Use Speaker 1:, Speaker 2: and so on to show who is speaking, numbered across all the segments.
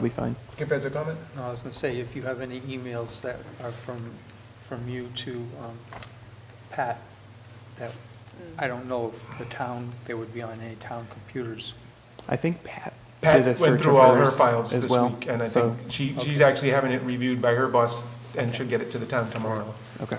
Speaker 1: We'll be fine.
Speaker 2: Skip has a comment?
Speaker 3: No, I was going to say, if you have any emails that are from, from you to um, Pat, that, I don't know if the town, they would be on any town computers.
Speaker 1: I think Pat did a
Speaker 2: Pat
Speaker 1: search
Speaker 2: went
Speaker 1: of
Speaker 2: through all her
Speaker 1: hers
Speaker 2: files
Speaker 1: as
Speaker 2: this
Speaker 1: well.
Speaker 2: week, and I
Speaker 1: so-
Speaker 2: think she, she's actually having it reviewed by her boss and should get it to the town tomorrow.
Speaker 1: Okay.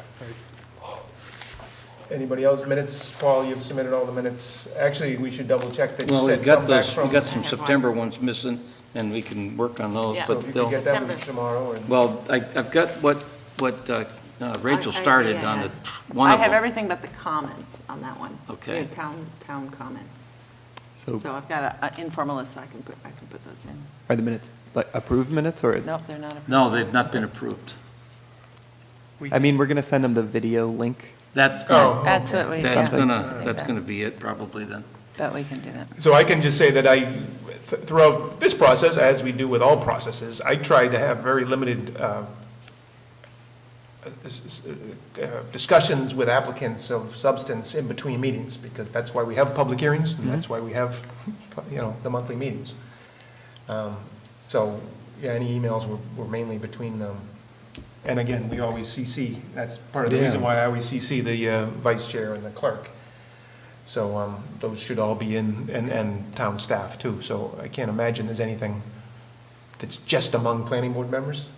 Speaker 2: Anybody else? Minutes, Paul, you've submitted all the minutes. Actually, we should double check that you
Speaker 4: Well,
Speaker 2: sent
Speaker 4: we've
Speaker 2: some
Speaker 4: got
Speaker 2: back
Speaker 4: those,
Speaker 2: from.
Speaker 4: we've got some September ones missing, and we can work on those,
Speaker 5: Yeah.
Speaker 2: So
Speaker 4: but
Speaker 2: if you could
Speaker 4: they'll,
Speaker 2: get that with
Speaker 5: September.
Speaker 2: us tomorrow, and
Speaker 4: well, I, I've got what, what uh, uh, Rachel
Speaker 5: I- I-
Speaker 4: started
Speaker 5: yeah,
Speaker 4: on the,
Speaker 5: yeah.
Speaker 4: tr- one of
Speaker 5: I have
Speaker 4: them.
Speaker 5: everything but the comments on that one.
Speaker 4: Okay.
Speaker 5: Your town, town comments.
Speaker 6: Oh.
Speaker 1: So
Speaker 5: So I've got an informal list, so I can put, I can put those in.
Speaker 1: are the minutes, like approved minutes or?
Speaker 5: Nope, they're not approved.
Speaker 4: No, they've not been approved.
Speaker 3: We-
Speaker 1: I mean, we're going to send them the video link.
Speaker 4: That's,
Speaker 2: Oh.
Speaker 4: gonna-
Speaker 7: That's what we,
Speaker 4: that's
Speaker 7: yeah,
Speaker 4: gonna, that's gonna be it probably then.
Speaker 7: but we can do that.
Speaker 2: So I can just say that I, th- throughout this process, as we do with all processes, I try to have very limited uh, s- s- uh, discussions with applicants of substance in between meetings, because that's why we have public hearings, and that's why we have, you know, the monthly meetings. Um, So, yeah, any emails were were mainly between them. And again, we always CC, that's part of the reason why I always CC the uh, vice chair and the clerk. So um, those should all be in, and, and town staff too. So I can't imagine there's anything that's just among planning board members.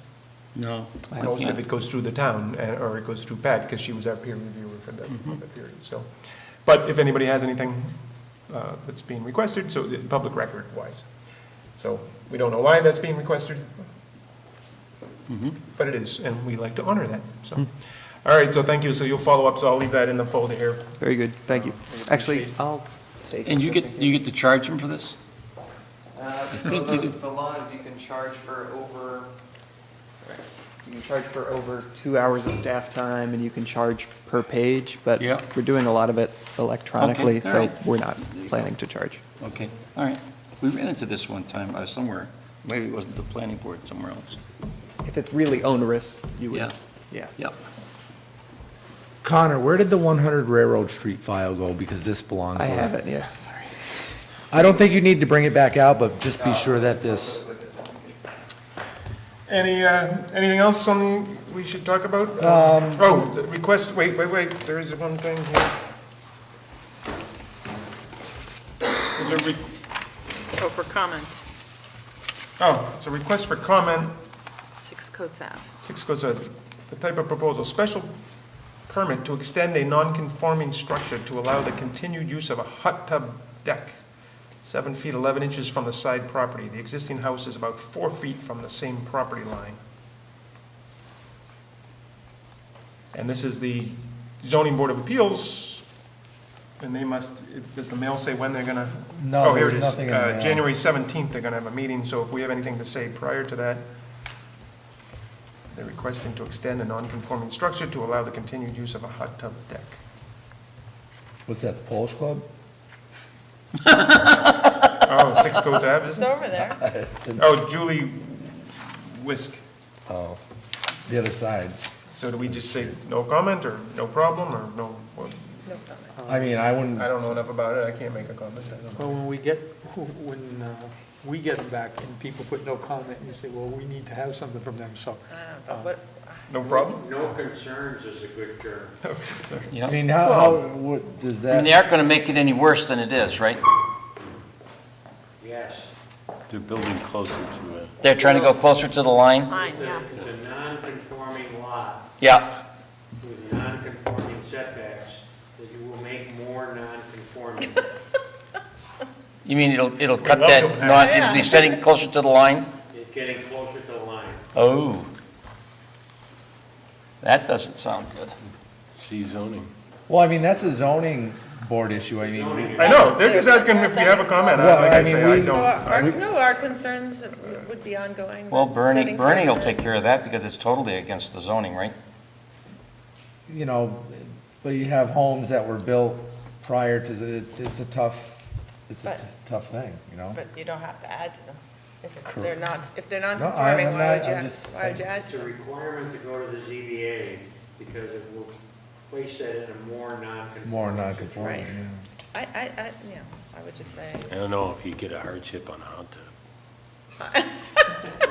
Speaker 4: No. I
Speaker 2: Most of
Speaker 4: can't.
Speaker 2: it goes through the town, uh, or it goes through Pat, because she was our peer reviewer for that,
Speaker 4: Mm-hmm.
Speaker 2: for that period, so. But if anybody has anything uh, that's being requested, so, uh, public record wise. So, we don't know why that's being requested.
Speaker 4: Mm-hmm.
Speaker 2: But it is, and we like to honor that, so.
Speaker 4: Mm.
Speaker 2: All right, so thank you, so you'll follow up, so I'll leave that in the folder here.
Speaker 1: Very good, thank you. Actually, I'll take.
Speaker 4: And you get, you get to charge them for this?
Speaker 8: Uh, So
Speaker 4: think you
Speaker 8: the,
Speaker 4: do.
Speaker 8: the law is you can charge for over,
Speaker 1: You can charge for over two hours of staff time and you can charge per page, but
Speaker 4: Yeah.
Speaker 1: we're doing a lot of it electronically,
Speaker 4: Okay, all
Speaker 1: so
Speaker 4: right.
Speaker 1: we're not
Speaker 4: There you
Speaker 1: planning to charge.
Speaker 4: Okay, all right. We ran into this one time, uh, somewhere, maybe it wasn't the planning board, somewhere else.
Speaker 1: If it's really onerous, you
Speaker 4: Yeah.
Speaker 1: would, yeah.
Speaker 4: Yep.
Speaker 6: Connor, where did the 100 Railroad Street file go? Because this belongs
Speaker 1: I
Speaker 6: with
Speaker 1: have
Speaker 6: us.
Speaker 1: it, yeah.
Speaker 6: I don't think you need to bring it back out, but just be sure that this,
Speaker 2: Any, uh, anything else on, we should talk about? Oh, the request, wait, wait, wait, there is one thing here. There's a re-
Speaker 7: Oh, for comment,
Speaker 2: Oh, it's a request for comment,
Speaker 7: six coats out.
Speaker 2: six goes, uh, the type of proposal, special permit to extend a non-conforming structure to allow the continued use of a hot tub deck, seven feet 11 inches from the side property. The existing house is about four feet from the same property line. And this is the zoning board of appeals, and they must, it- does the mail say when they're gonna?
Speaker 6: No,
Speaker 2: Oh, here it
Speaker 6: there's
Speaker 2: is.
Speaker 6: nothing in the
Speaker 2: Uh,
Speaker 6: mail.
Speaker 2: January 17th, they're gonna have a meeting, so if we have anything to say prior to that, they're requesting to extend a non-conforming structure to allow the continued use of a hot tub deck.
Speaker 6: what's that, the Polish Club?
Speaker 2: Oh, Six Coast Ave,
Speaker 7: It's
Speaker 2: isn't it?
Speaker 7: over there.
Speaker 6: It's in-
Speaker 2: Oh, Julie Whisk.
Speaker 6: Oh, the other side.
Speaker 2: So do we just say no comment, or no problem, or no, well,
Speaker 6: I mean, I wouldn't,
Speaker 2: I don't know enough about it, I can't make a comment. I don't know.
Speaker 3: Well, when we get, when uh, we get them back and people put no comment, you say, well, we need to have something from them, so.
Speaker 2: No problem?
Speaker 9: No concerns is a good term.
Speaker 6: I
Speaker 4: Yeah.
Speaker 6: mean, how, how, what, does
Speaker 4: I mean, they
Speaker 6: that,
Speaker 4: aren't gonna make it any worse than it is, right?
Speaker 9: Yes.
Speaker 10: They're building closer to it.
Speaker 4: They're trying to go closer to the line?
Speaker 7: Mine,
Speaker 9: It's
Speaker 7: yeah.
Speaker 9: a, it's a non-conforming lot
Speaker 4: Yeah.
Speaker 9: with non-conforming setbacks that you will make more non-conforming.
Speaker 4: You mean it'll, it'll cut
Speaker 2: love
Speaker 4: that,
Speaker 2: to have-
Speaker 4: not, it'll be setting closer to the line?
Speaker 9: It's getting closer to the line.
Speaker 4: Oh. That doesn't sound good.
Speaker 10: See zoning.
Speaker 6: well, I mean, that's a zoning board issue, I mean.
Speaker 9: Zoning is-
Speaker 2: I know, they're just asking if we have a comment, I- like I say, I
Speaker 6: So,
Speaker 2: don't.
Speaker 7: our, no, our concerns would be ongoing.
Speaker 4: Well, Bernie, Bernie will take care of that because it's totally against the zoning, right?
Speaker 6: You know, but you have homes that were built prior to, the- it's, it's a tough, it's a
Speaker 7: But-
Speaker 6: t- tough thing, you know?
Speaker 7: But you don't have to add to them. If it's,
Speaker 6: they're
Speaker 7: not, if they're
Speaker 6: No, I- non-conforming, I'm why not- would you I'm add- just why would you
Speaker 7: add
Speaker 9: It's a requirement to go to the ZBA because it will place that in a more non-conforming.
Speaker 6: More non-conforming,
Speaker 7: Right.
Speaker 6: yeah.
Speaker 7: I, I, I, yeah, I would just say.
Speaker 10: I don't know if you get a hardship on a hot tub.